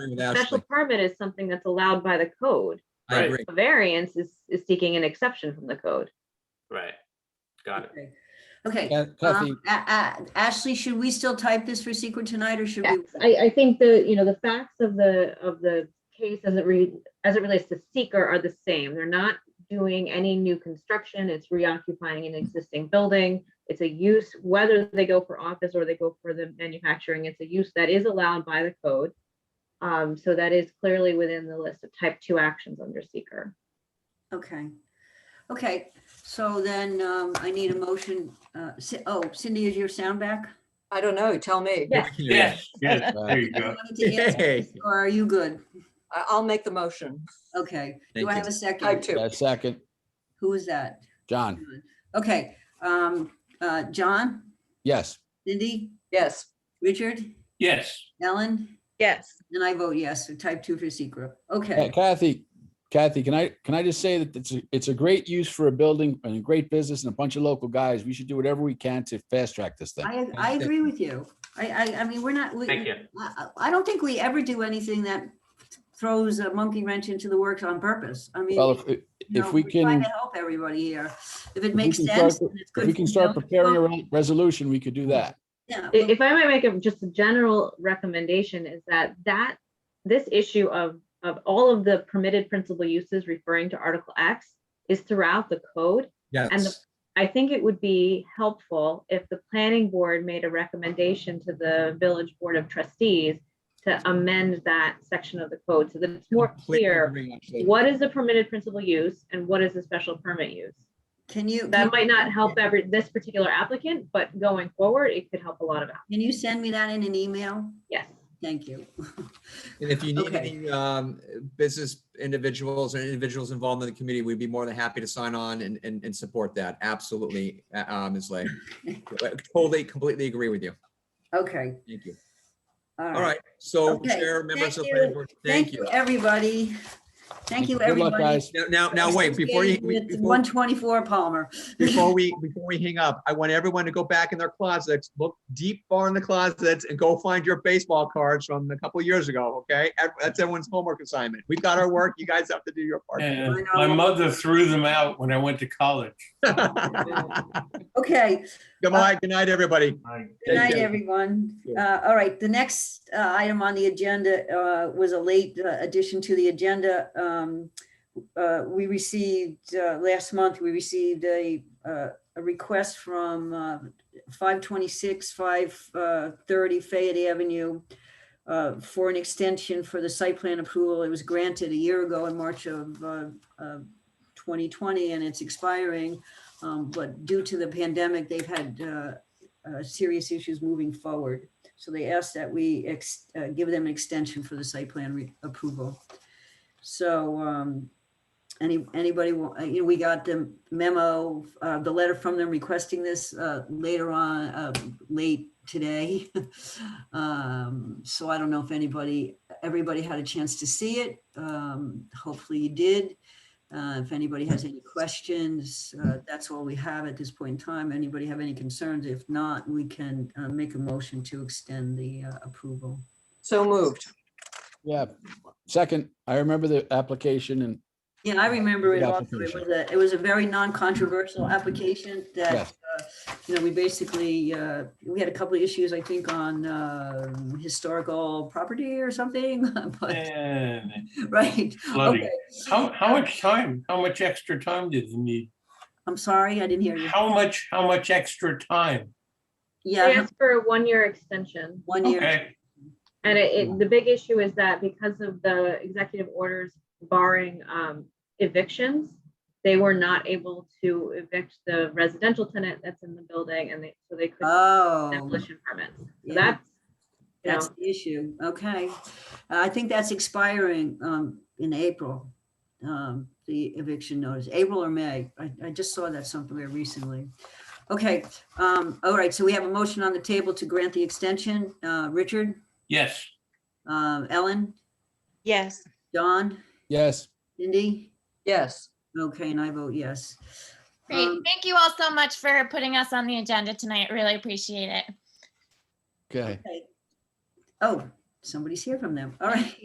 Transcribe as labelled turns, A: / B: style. A: it out,
B: Special
A: like,
B: permit is something that's allowed by the code.
A: I agree.
B: A variance is, is seeking an exception from the code.
C: Right. Got it.
D: Okay. Okay,
A: Yeah, Kathy,
D: um, A- A- Ashley, should we still type this for secret tonight or should
B: Yes,
D: we?
B: I, I think the, you know, the facts of the, of the case as it re, as it relates to seeker are the same. They're not doing any new construction. It's reoccupying an existing building. It's a use, whether they go for office or they go for the manufacturing, it's a use that is allowed by the code. Um, so that is clearly within the list of type two actions under seeker.
D: Okay. Okay, so then um, I need a motion. uh, Ci- Oh, Cindy, is your sound back?
E: I don't know, tell me.
B: Yeah.
C: Yeah.
F: Yes, there you
D: You
F: go.
D: wanted to answer
A: Yay.
D: this, Or are you good?
E: I- I'll make the motion.
D: Okay, do
A: Thank
D: I
A: you.
D: have a
E: I
D: second?
E: too.
G: Uh, Second,
D: Who is that?
G: John,
D: Okay, um, uh, John,
G: yes.
D: Cindy,
E: Yes,
D: Richard,
F: Yes,
D: Ellen,
H: yes.
D: and I vote yes, so type two for secret. Okay.
G: Hey, Kathy, Kathy, can I, can I just say that it's, a it's a great use for a building and a great business and a bunch of local guys. We should do whatever we can to fast track this thing.
D: I, I
A: Thank
D: agree with you. I, I, I mean, we're not, we,
C: Thank you.
D: I, I- I don't think we ever do anything that throws a monkey wrench into the works on purpose. I mean,
G: Well, if,
D: you know,
G: if we
D: we're trying to
G: can,
D: Help everybody here. If it
G: we
D: makes
G: can
D: sense.
G: start-
D: and it's
G: if
D: good
G: we
D: for
G: can
D: the
G: start
D: building
G: preparing a
D: code,
G: re- resolution, we could do that.
D: yeah,
B: I-
D: well,
B: if I might make a, just a general recommendation is that that, this issue of, of all of the permitted principal uses referring to Article X is throughout the code.
A: Yes.
B: I think it would be helpful if the planning board made a recommendation to the village board of trustees to amend that section of the code so that it's more
A: Completely
B: clear
A: agree, actually.
B: what is the permitted principal use and what is the special permit use.
D: Can you, can
B: That might not help every, this particular applicant, but going forward, it could help a lot of, app-
D: can you send me that in an email?
B: yes.
D: Thank you.
A: And if you need
D: Okay.
A: any um, business individuals or individuals involved in the committee, we'd be more than happy to sign on and, and, and support that. Absolutely, uh, uh, Ms. Lay. Totally, completely agree with you.
D: Okay,
A: Thank you.
D: all
A: All
D: right.
A: right, so
D: Okay,
A: Chair, members
D: thank
A: of the planning
D: you.
A: board,
D: Thank you, everybody. Thank you,
G: Good luck,
D: everybody.
G: guys.
A: Now- Now, now, wait, before you, we- before-
D: One twenty-four Palmer.
A: before we, before we hang up, I want everyone to go back in their closets, look deep far in the closets and go find your baseball cards from a couple years ago, okay? Ev- That's everyone's homework assignment. We've got our work. You guys have to do your part.
F: and my mother threw them out when I went to college.
D: Okay,
A: Goodbye, good night, everybody.
D: Good
A: Thank
D: night,
A: you.
D: everyone.
A: Yeah.
D: Uh, All right, the next uh, item on the agenda uh, was a late uh, addition to the agenda. Um, uh, We received, uh, last month, we received a, uh, a request from uh, 526, 530 uh, Fayette Avenue uh, for an extension for the site plan approval. It was granted a year ago in March of uh, of 2020, and it's expiring. Um, But due to the pandemic, they've had uh, uh, serious issues moving forward. So they asked that we ex- uh, give them an extension for the site plan re- approval. So um, any, anybody, wa- uh, you know, we got the memo, uh, the letter from them requesting this uh, later on, uh, late today. Um, So I don't know if anybody, everybody had a chance to see it. Um, Hopefully you did. Uh, If anybody has any questions, uh, that's all we have at this point in time. Anybody have any concerns? If not, we can uh, make a motion to extend the uh, approval.
E: so moved.
G: Yeah. Second, I remember the application and
D: Yeah, I remember it
G: Good
D: also. It was
G: application.
D: a, it was a very non-controversial application that,
G: Yes.
D: uh, you know, we basically, uh, we had a couple of issues, I think, on um, historical property or something, but,
F: And
D: right?
F: flooding.
D: Okay.
F: How, how much time, how much extra time did you need?
D: I'm sorry, I didn't hear you.
F: How much, how much extra time?
B: They
D: Yeah,
B: asked for a one-year extension.
D: one year.
F: Okay,
B: And it, it- the big issue is that because of the executive orders barring um, evictions, they were not able to evict the residential tenant that's in the building and they, so they couldn't
D: Oh.
B: demolition permits. So
D: yeah.
B: that's, you know,
D: That's the issue, okay. Uh, I think that's expiring um, in April, um, the eviction notice, April or May. I, I just saw that somewhere recently. Okay, um, all right, so we have a motion on the table to grant the extension. Uh, Richard,
F: yes.
D: uh, Ellen,
H: Yes.
D: Don,
G: yes,
D: Cindy?
E: Yes,
D: Okay, and I vote yes.
I: Great.
D: Um,
I: Thank you all so much for putting us on the agenda tonight. Really appreciate it.
G: okay.
D: Oh, somebody's here from them, all right.